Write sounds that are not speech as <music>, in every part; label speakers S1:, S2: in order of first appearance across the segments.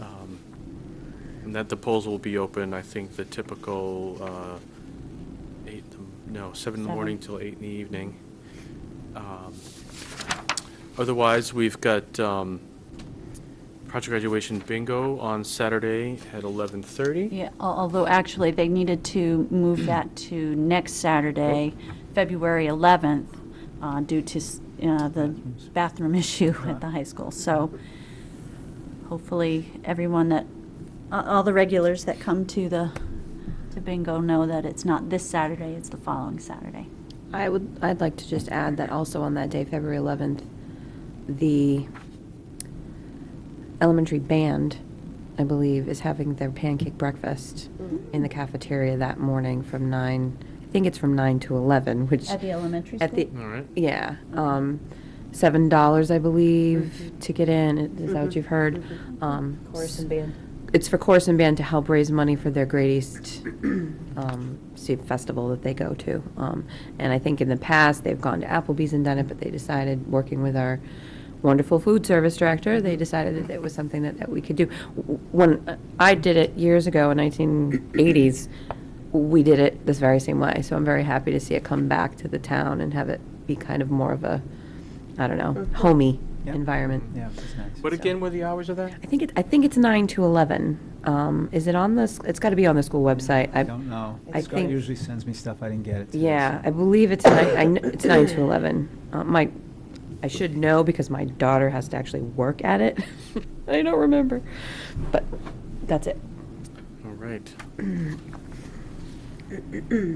S1: Um, And that the polls will be open, I think, the typical uh, eight, no, seven in the
S2: Seven.
S1: morning till eight in the evening. Um, Otherwise, we've got um, project graduation bingo on Saturday at 11:30.
S2: Yeah, al- although actually, they needed to move that to next Saturday, February 11th, uh, due to s- uh, the bathroom <laughs> issue at the high school. So hopefully, everyone that, a- all the regulars that come to the, to bingo know that it's not this Saturday, it's the following Saturday.
S3: I would, I'd like to just add that also on that day, February 11th, the elementary band, I believe, is having their pancake breakfast
S2: Mm-hmm.
S3: in the cafeteria that morning from 9, I think it's from 9 to 11, which.
S2: At the elementary
S3: At the,
S1: All right.
S3: yeah, um, seven dollars, I believe, to get in, is that what you've heard? Um,
S4: Mm-hmm. Chorus and band.
S3: It's for Chorus and Band to help raise money for their Great East <clears throat> um, State Festival that they go to. Um, And I think in the past, they've gone to Applebee's and done it, but they decided, working with our wonderful food service director, they decided that it was something that, that we could do. W- When I did it years ago in 1980s, we did it this very same way. So I'm very happy to see it come back to the town and have it be kind of more of a, I don't know, homey
S5: Yep.
S3: environment.
S5: Yeah, that's nice.
S1: What again were the hours of that?
S3: I think it, I think it's nine to eleven. Um, is it on the? s- It's got to be on the school website.
S5: I don't know.
S3: I
S5: Scott
S3: think-
S5: usually sends me stuff I didn't get it. today,
S3: Yeah,
S5: so-
S3: I believe it's nine. I kn- it's nine to eleven. Uh, my, I should know because my daughter has to actually work at it. <laughs> I don't remember, but that's it.
S1: All right.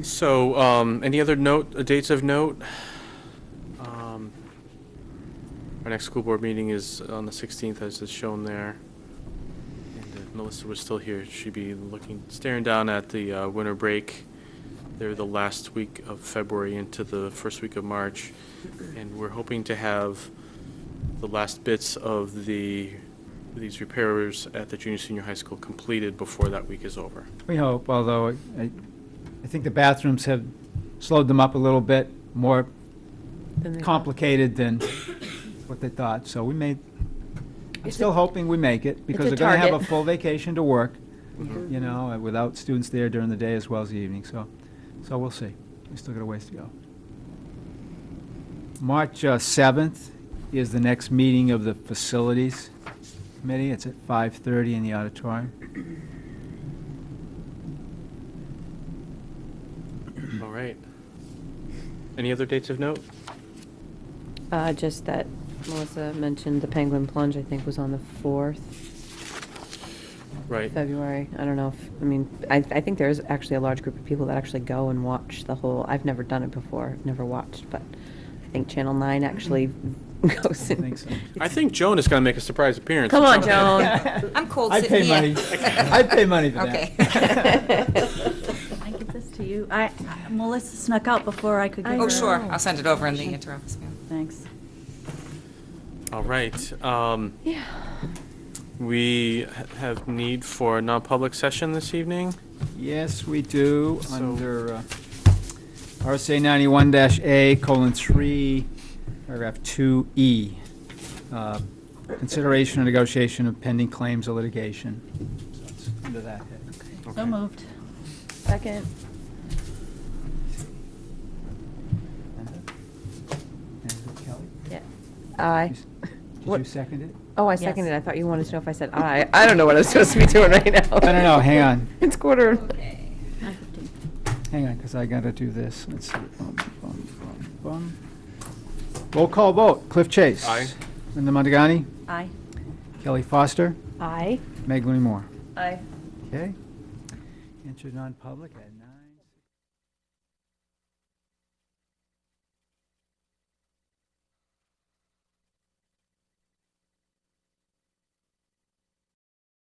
S1: So, um, any other note, uh, dates of note? Um, Our next school board meeting is on the 16th, as is shown there. And if Melissa was still here, she'd be looking, staring down at the uh, winter break. They're the last week of February into the first week of March. And we're hoping to have the last bits of the, these repairs at the junior, senior high school completed before that week is over.
S5: We hope, although I, I I think the bathrooms have slowed them up a little bit, more complicated than what they thought, so we made, I'm
S3: It's
S5: still
S3: a-
S5: hoping we make it, because
S3: a
S5: they're gonna have a
S3: target.
S5: full vacation to work, you know, and without students there during the day as well as the evening, so, so we'll see. We still got a ways to go. March uh, seventh is the next meeting of the Facilities Committee. It's at five-thirty in the auditorium.
S1: All right. Any other dates of note?
S3: Uh, just that Melissa mentioned the penguin plunge. I think was on the fourth.
S1: Right.
S3: February. I don't know if, I mean, I, I think there is actually a large group of people that actually go and watch the whole, I've never done it before, I've never watched, but I think Channel 9 actually <laughs> goes
S5: I
S3: and.
S5: think so.
S1: I think Joan is going to make a surprise appearance.
S3: Come
S1: at
S3: on,
S1: some <laughs>
S3: Joan.
S1: point.
S4: I'm cold
S5: I
S4: sitting
S5: pay
S4: here.
S5: money, I pay money for that.
S4: Okay. <laughs>
S2: I give this to you. I, Melissa snuck out before I could
S3: I
S2: get
S4: Oh,
S3: know.
S2: her.
S4: sure, I'll send it over in the interoffice mail.
S2: Thanks.
S1: All right. Um, We ha- have need for a non-public session this evening.
S5: Yes, we do,
S1: So-
S5: under uh, RSA ninety-one dash A colon three, paragraph two E. uh, Consideration and negotiation of pending claims or litigation. So it's Under that head.
S1: Okay.
S2: So moved.
S3: Second.
S5: And uh, Kelly?
S3: Yeah. Aye.
S5: Did
S3: What-
S5: you second it?
S3: Oh, I
S2: Yes.
S3: seconded. I thought you wanted to know if I said aye. I don't know what I'm supposed to be doing right now.
S5: I don't know, hang on.
S3: <laughs> It's quarter.
S5: Hang on, because I gotta do this. Let's see. Bum, bum, bum, bum. Roll call vote. Cliff Chase.
S1: Aye.
S5: Linda Montagani.
S2: Aye.
S5: Kelly Foster.
S3: Aye.
S5: Meg Moore.
S3: Aye.
S5: Okay. Enter non-public at